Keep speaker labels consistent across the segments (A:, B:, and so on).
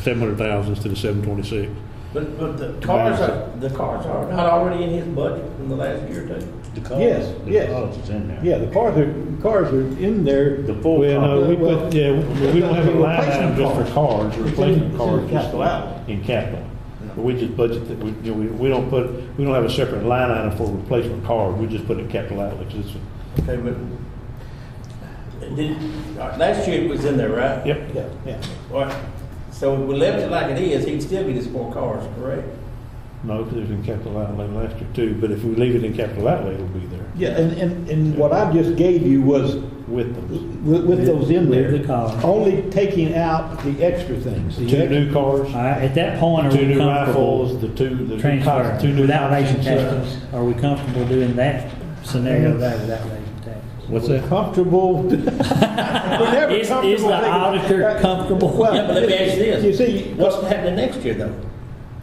A: seven hundred thousand instead of seven twenty-six.
B: But, but the cars are, the cars are not already in his budget from the last year or two.
C: The cost,
D: Yes,
C: the
D: yes.
C: cost is in there.
D: Yeah, the cars are, cars are in there.
C: The full
D: when, uh,
C: cost.
D: we
A: Well,
D: put-
A: yeah, we don't have a line item just for
D: Replacement
A: cars,
D: in- it's
A: replacement
D: in
A: cars. just
D: capital outlay.
A: In capital. But we just budget that, we, you know, we, we don't put, we don't have a separate line item for replacement cars, we just put it in capital outlay, 'cause it's,
B: Okay, but, did, uh, last year it was in there, right?
A: yep.
D: Yeah, yeah.
B: All right. so if we left it like it is, he'd still be just four cars, correct?
A: No, 'cause it was in capital outlay last year too, but if we leave it in capital outlay, it'll be there
D: Yeah, and, and, and what I just gave you was
A: with them.
D: with, with those in
E: With
D: there.
E: the cars.
D: Only taking out the extra things. the
A: Two
D: extra-
A: new cars,
E: All right, at that point, are
A: two
E: we
A: new
E: comfortable
A: rifles, the two, the two cops, two
E: transferring
A: new.
E: without
A: cops, and,
E: raising
A: uh,
E: taxes? Are we comfortable doing that
D: Mm-hmm.
E: scenario there without raising taxes?
A: What's that?
D: Comfortable. We're never
E: Is- is the
D: comfortable taking-
E: auditor comfortable?
D: Well,
B: Yeah, but let me ask you
D: You
B: this,
D: see,
B: what's happening next year though?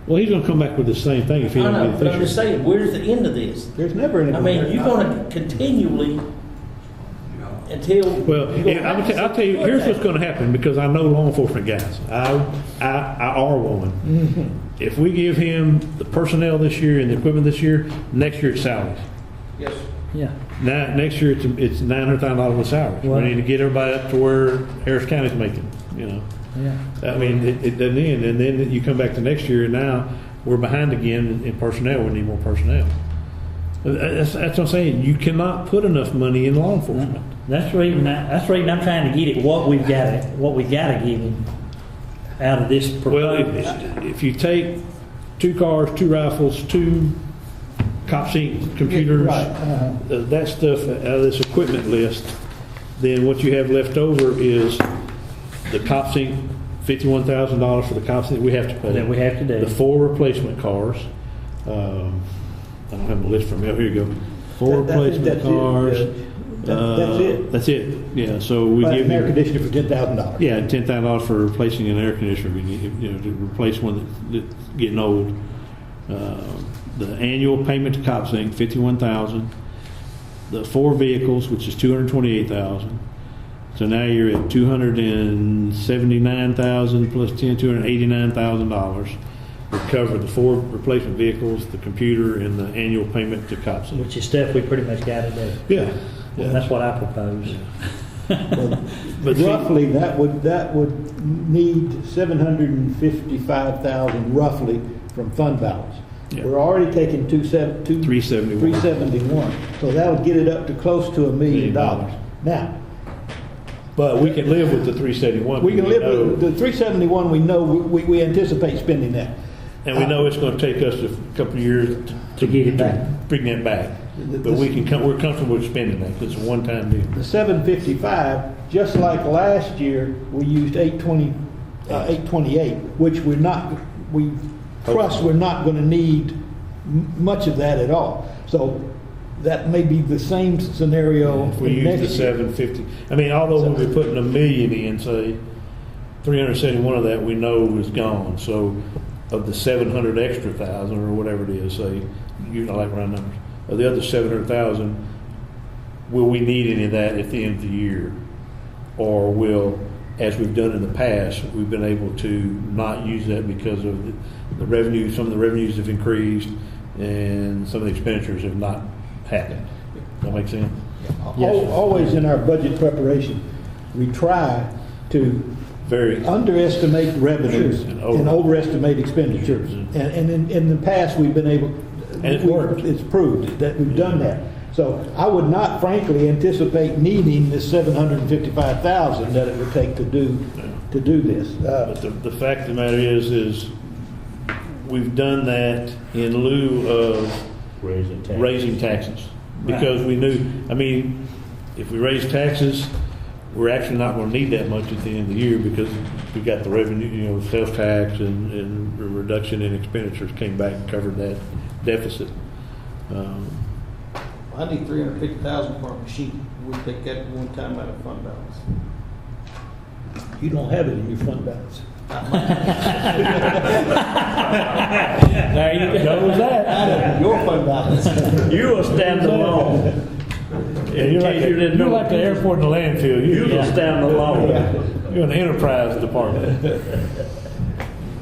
A: Well, he's gonna come back with the same thing if
B: I
A: he don't
B: know,
A: get
B: but I'm
A: it
B: just
A: this year.
B: saying, where's the end of this?
D: there's never any.
B: I mean, you're gonna continually, until.
A: Well, and I would t- I'll tell you, here's what's gonna happen, because I know law enforcement guys, I, I, I are one. If we give him the personnel this year and the equipment this year, next year it's salaries.
B: Yes.
E: Yeah.
A: Now, next year it's, it's nine hundred thousand dollars in salaries. We
E: Wow.
A: need to get everybody up to where Harris County's making, you know?
E: Yeah.
A: I mean, it, it doesn't end, and then you come back to next year, and now we're behind again in personnel, we need more personnel. That's, that's what I'm saying, you cannot put enough money in law enforcement.
E: That's the reason, I- that's the reason I'm trying to get at what we've got, what we gotta give him out of this
A: Well, if,
E: proposal.
A: if you take two cars, two rifles, two cop seat computers,
D: Yeah, right, uh-huh.
A: uh, that stuff out of this equipment list, then what you have left over is the cop seat, fifty-one thousand dollars for the cop seat we have to pay.
E: That we have to do.
A: The four replacement cars, um, I don't have a list from, Oh, here here you go. Four
D: That- that's it,
A: replacement
D: that's it,
A: cars.
D: yeah. That- that's
A: uh,
D: it.
A: That's it, yeah, so we
D: Buy
A: give
D: an
A: you.
D: air conditioner for ten thousand dollars.
A: Yeah, ten thousand dollars for replacing an air conditioner, we need, you know, to replace one that- that's getting old. Uh, The annual payment to COPS Inc., fifty-one thousand. The four vehicles, which is two hundred twenty-eight thousand. So now you're at two hundred and seventy-nine thousand plus ten, two hundred eighty-nine thousand dollars. Recover the four replacement vehicles, the computer, and the annual payment to COPS Inc.
E: Which is stuff we pretty much gotta do.
A: Yeah.
E: Well,
A: yeah.
E: That's what I propose.
A: But see-
D: Roughly, that would, that would need seven hundred and fifty-five thousand roughly from fund balance.
A: Yeah.
D: We're already taking two seven, two.
A: 371.
D: Three seventy-one, so that would get it up to close to a
A: Million
D: million
A: dollars.
D: dollars. Now,
A: But we can live with the three seventy-one.
D: we can live with, the three seventy-one, we know, we, we anticipate spending that.
A: And we know it's going to take us a couple of years to-
E: To get it back.
A: bring that back. But we can, com- we're comfortable with spending that, 'cause it's a one-time deal.
D: The seven fifty-five, just like last year, we used eight twenty, uh, eight twenty-eight, which we're not, we trust we're not gonna need m- much of that at all. So that may be the same scenario
A: If
D: for
A: we use the
D: next year.
A: seven fifty, I mean, although we'll be putting a million in, say, three hundred seventy-one of that we know is gone. So of the seven hundred extra thousand or whatever it is, say, you know, like round numbers, of the other seven hundred thousand, will we need any of that at the end of the year? Or will, as we've done in the past, we've been able to not use that because of the- the revenue, some of the revenues have increased and some of the expenditures have not happened. That make sense?
D: Al- Always in our budget preparation, we try to
A: Very,
D: underestimate revenues
A: And
D: and
A: over-
D: overestimate expenditures. And, and in, in the past, we've been able.
A: And it
D: we-
A: worked.
D: It's proved that we've done that. So I would not frankly anticipate needing this seven hundred and fifty-five thousand that it would take to do, to do this. Uh,
A: but the, the fact of the matter is, is we've done that in lieu of
C: Raising taxes.
A: raising taxes. Because we knew, I mean, if we raise taxes, we're actually not gonna need that much at the end of the year because we got the revenue, you know, sales tax and, and a reduction in expenditures came back and covered that deficit. Um,
F: I need three hundred fifty thousand for a machine, we take that one time out of fund balance.
D: You don't have it in your fund balance.
E: There you go.
A: Goes that.
F: Out of your fund balance.
A: You will stand alone. In
E: You're like
A: case
E: a-
A: you didn't
E: you're
A: know.
E: like the airport
A: and landfill.
E: You will
A: stand alone. You're an enterprise department.